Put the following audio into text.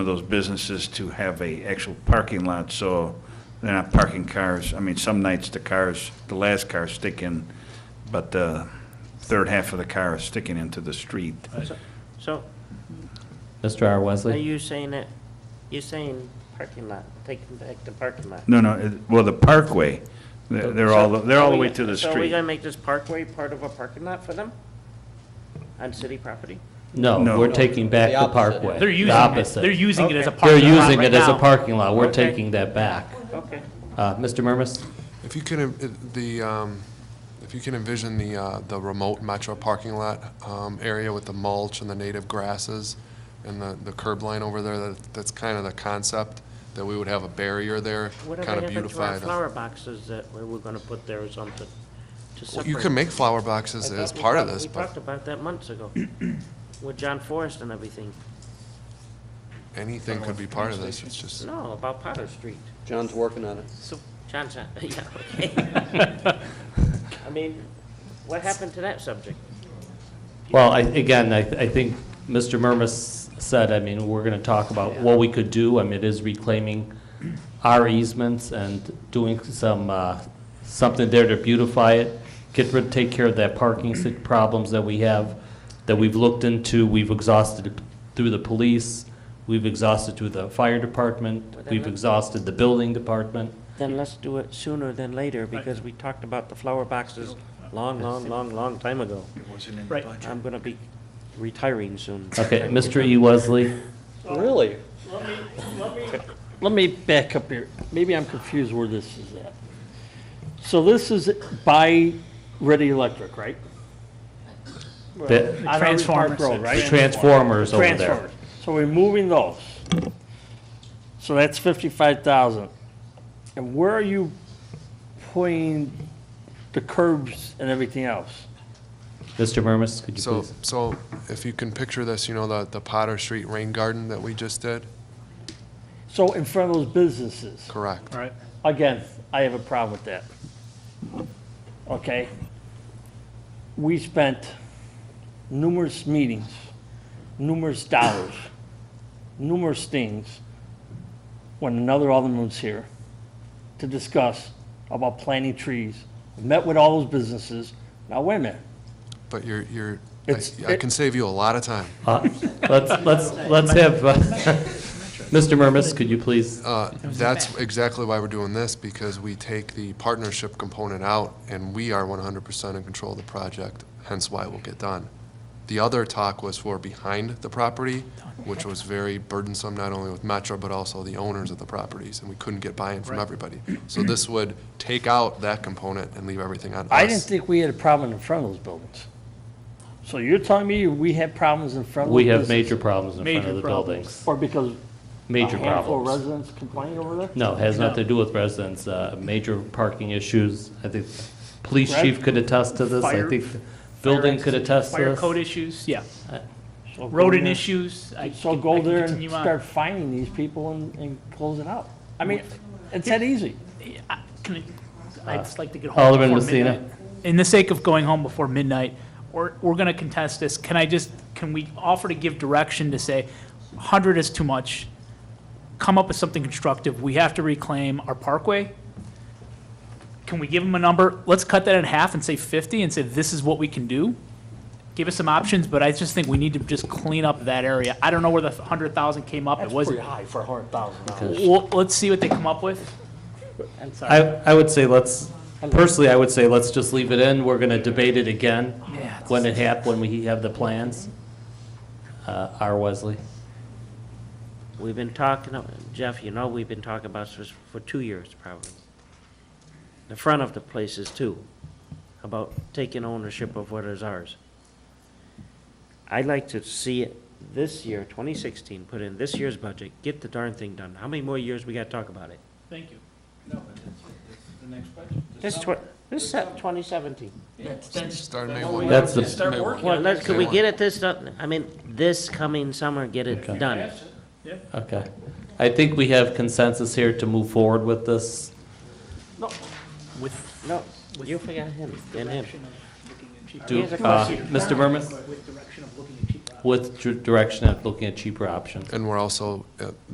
of those businesses to have a actual parking lot, so they're not parking cars. I mean, some nights the cars, the last car stick in, but the third half of the car is sticking into the street. So Mr. R. are Wesley? you saying that, you're saying parking lot, taking back the parking lot? No, no, it- well, the parkway, they're they're all, they're all the way to the So are we street. gonna make this parkway part of a parking lot for them? On city property? No, No. we're taking back The the opposite. parkway. They're The using it, opposite. they're using it as a Okay. They're parking lot using right it as a now. parking lot. We're Okay. taking that back. Okay. Uh, Mr. Murmas? If you can, env- the, um, if you can envision the, uh, the remote metro parking lot um, area with the mulch and the native grasses and the the curb line over there, that- that's kind of the concept, that we would have a barrier there, Whatever kind of happened to our beautify the... flower boxes that we were gonna put there or something? to Well, You separate- can make flower boxes I as thought we part of talked- this, We talked but about that months ago with John Forrest and everything. anything could be part of this, it's just... No, about Potter Street. John's working on it. So, John, John- yeah, okay. I mean, what happened to that subject? Well, I, again, I, I think Mr. Murmas said, I mean, we're gonna talk about what we could do. I mean, it is reclaiming our easements and doing some, uh, something there to beautify it. Get rid, take care of that parking sit problems that we have, that we've looked into, we've exhausted through the police, we've exhausted through the fire department, we've exhausted the building department. Then let's do it sooner than later, because we talked about the flower boxes long, long, long, long time ago. Right. I'm gonna be retiring soon. Okay, Mr. E. Wesley? Really? Let me back up here. Maybe I'm confused where this is at. So this is by Ready Electric, right? The- On Irving Park Transformers. Road, right? Transformers over there. Transformers. So we're moving those. So that's fifty-five thousand. And where are you putting the curbs and everything else? Mr. Murmas, could you So, please? so if you can picture this, you know, the the Potter Street Rain Garden that we just did? So in front of those businesses. Correct. Right. Again, I have a problem with that. Okay? We spent numerous meetings, numerous dollars, numerous things when another alderman was here to discuss about planting trees. Met with all those businesses. Now, wait a minute. But you're, you're, I- It's- I it- can save you a lot of time. Uh, Let's, let's, let's have, uh, Mr. Murmas, could you please? Uh, That's exactly why we're doing this, because we take the partnership component out, and we are 100% in control of the project, hence why it will get done. The other talk was for behind the property, which was very burdensome, not only with Metro, but also the owners of the properties, and we couldn't get buy-in from everybody. So this would take out that component and leave everything on us. I didn't think we had a problem in front of those buildings. So you're telling me we had problems in front of those We have businesses? major problems in front Major of the problems. buildings. Or because Major A handful of problems. residents complaining over there? No, has nothing to do with residents, uh, major parking issues. I think police Right. chief could attest to this. I Fire- think the building could attest to Fire code this. issues, yeah. So go Rodent there- issues. I So can- I go can there and continue on. start finding these people and, and close it out. I mean, it's that easy. I- Can I, I'd just like to get home Alderman before Messina. midnight. In the sake of going home before midnight, we're, we're gonna contest this. Can I just, can we offer to give direction to say, hundred is too much? Come up with something constructive. We have to reclaim our parkway. Can we give them a number? Let's cut that in half and say fifty and say this is what we can do. Give us some options, but I just think we need to just clean up that area. I don't know where the hundred thousand came up. It That's pretty wasn't. high for a hundred thousand dollars. Well, let's see what they come up with. I, I would say let's, personally, I would say let's just leave it in. We're gonna debate it again when it hap, when we have the plans. Uh, R. Wesley? We've been talking, Jeff, you know, we've been talking about this for two years probably. The front of the places too, about taking ownership of what is ours. I'd like to see it this year, twenty sixteen, put in this year's budget, get the darn thing done. How many more years we gotta talk about it? Thank you. This tw- this set twenty seventeen. Starting May 1. That's the Well, let's, could we get it this done? I mean, this coming summer, get it done. Okay. I think we have consensus here to move forward with this. With, No, you forgot him and him. direction of looking at cheap. Do- Here's a uh, question. Mr. Murmas? With direction of looking at cheap. with dir- direction of looking at cheaper options. And we're also, uh,